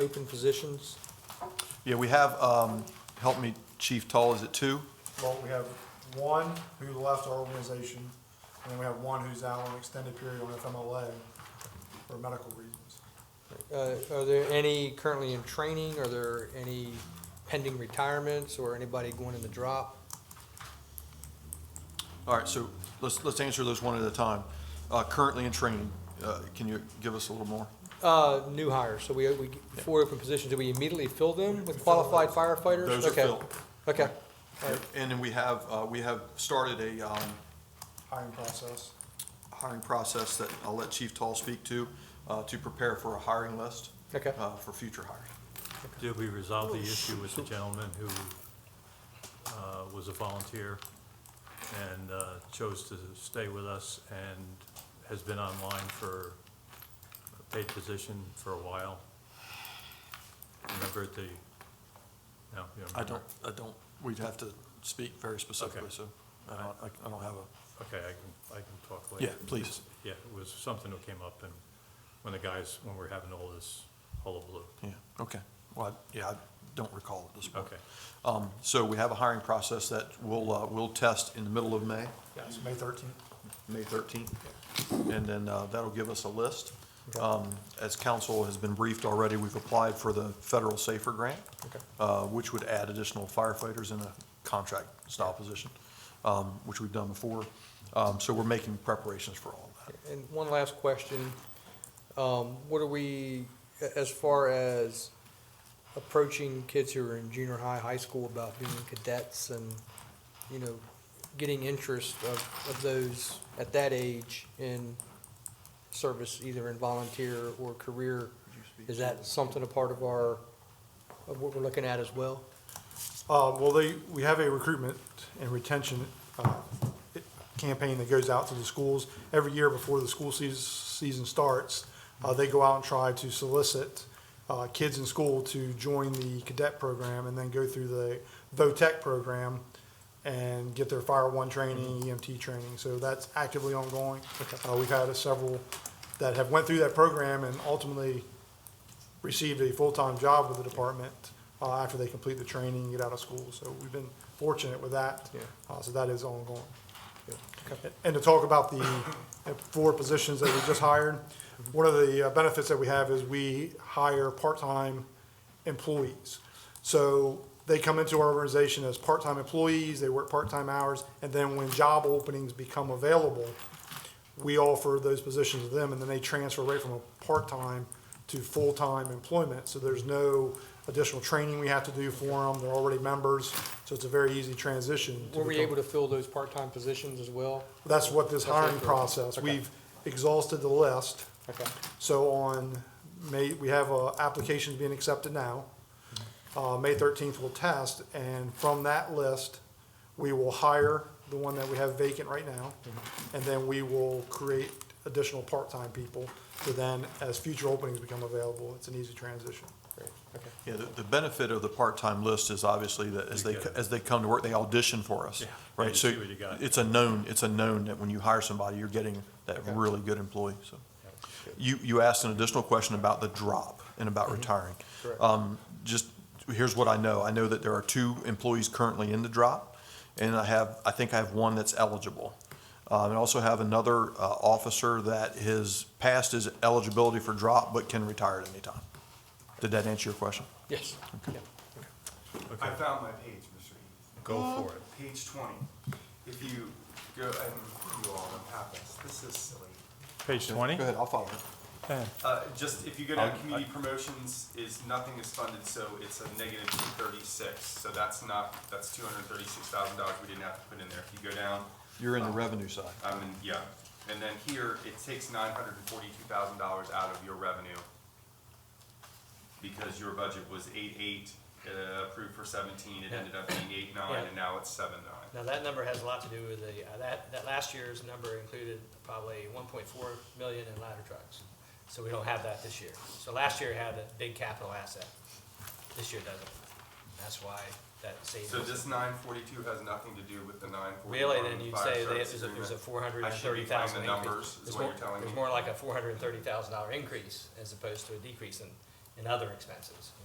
open positions? Yeah, we have, um, help me, Chief Toll, is it two? Well, we have one who left our organization, and then we have one who's out on an extended period on FMLA for medical reasons. Uh, Are there any currently in training? Are there any pending retirements or anybody going in the drop? All right, so let's, let's answer those one at a time. Uh, Currently in training, uh, can you give us a little more? Uh, New hires, so we, we, four open positions, do we immediately fill them with qualified firefighters? Those are Okay. filled. Okay, All right. And then we have, uh, we have started a um, Hiring process. hiring process that I'll let Chief Toll speak to, uh, to prepare for a hiring list okay. uh, for future hires. Did we resolve the issue with the gentleman who uh, was a volunteer and uh, chose to stay with us and has been online for a paid position for a while? Remember at the, no, you don't I remember? don't, I don't, we'd have to speak very specifically, Okay. so I don't, I- I don't have a, Okay, I can, I can talk later. yeah, please. Yeah, it was something that came up and when the guys, when we we're having all this hullabaloo. Yeah, okay. Well, I- yeah, I don't recall at this point. Okay. Um, So we have a hiring process that we'll, uh, we'll test in the middle of May, Yes. May thirteenth. May 13th. And then uh, that'll give us a list. Um, As council has been briefed already, we've applied for the federal SAFER grant, Okay. uh, which would add additional firefighters in a contract style position, um, which we've done before. Um, So we're making preparations for all that. And one last question, um, what are we, a- as far as approaching kids who are in junior high, high school about being cadets and, you know, getting interest of, of those at that age in service, either in volunteer or career? Is that something a part of our, of what we're looking at as well? Uh, well, they, we have a recruitment and retention, uh, campaign that goes out to the schools. Every year before the school season, season starts, uh, they go out and try to solicit, uh, kids in school to join the cadet program and then go through the VOTEC program and get their fire one training, EMT training. So that's actively ongoing. Uh, we've had several that have went through that program and ultimately received a full-time job with the department uh, after they complete the training and get out of school. So we've been fortunate with that. Yeah. Uh, So that is ongoing. Okay. And to talk about the uh, four positions that we just hired, one of the uh, benefits that we have is we hire part-time employees. So they come into our organization as part-time employees, they work part-time hours, and then when job openings become available, we offer those positions to them, and then they transfer right from a part-time to full-time employment. So there's no additional training we have to do for them, they're already members, so it's a very easy transition. to Were we become- able to fill those part-time positions as well? that's what That's this it, hiring correct. process, Okay. we've exhausted the list. Okay, So on May, we have, uh, applications being accepted now. Mm-hmm. Uh, May thirteenth we'll test, and from that list, we will hire the one that we have vacant right now. Mm-hmm. And then we will create additional part-time people, so then as future openings become available, it's an easy transition. great, okay. Yeah, the, the benefit of the part-time list is obviously that as You they, get it. as they come to work, they audition for us, Yeah, right? you So see what you got. it's a known, it's a known that when you hire somebody, you're getting that Okay. really good employee, so. You, you asked an additional question about the drop and about retiring. Mm-hmm. Correct. Um, just, here's what I know. I know that there are two employees currently in the drop, and I have, I think I have one that's eligible. Um, and I also have another, uh, officer that has passed his eligibility for drop but can retire at any time. Did that answer your question? Yes. Yeah. Okay, I found my page, Mr. Eads. go for it. Page twenty. If you go, and you all don't have this, this is silly. Page 20? Go ahead, I'll follow. Uh, just, if you go down, I'll- community promotions is, nothing is funded, so it's a negative two thirty-six. So that's not, that's two hundred and thirty-six thousand dollars we didn't have to put in there. If you go down, You're in the revenue side. I mean, yeah. And then here, it takes nine hundred and forty-two thousand dollars out of your revenue. Because your budget was eight-eight, uh, approved for seventeen, it ended up being eight-nine, and now it's seven-nine. Now, that number has a lot to do with the, uh, that, that last year's number included probably one point four million in ladder trucks. So we don't have that this year. So last year had a big capital asset. This year doesn't. That's why that savings. So this nine forty-two has nothing to do with the nine forty-one Really, then you'd say that there's a, there's a four hundred and thirty thousand I should be playing the increase. numbers, is There's what more- you're telling me. There's more like a four hundred and thirty thousand dollar increase as opposed to a decrease in, and other expenses.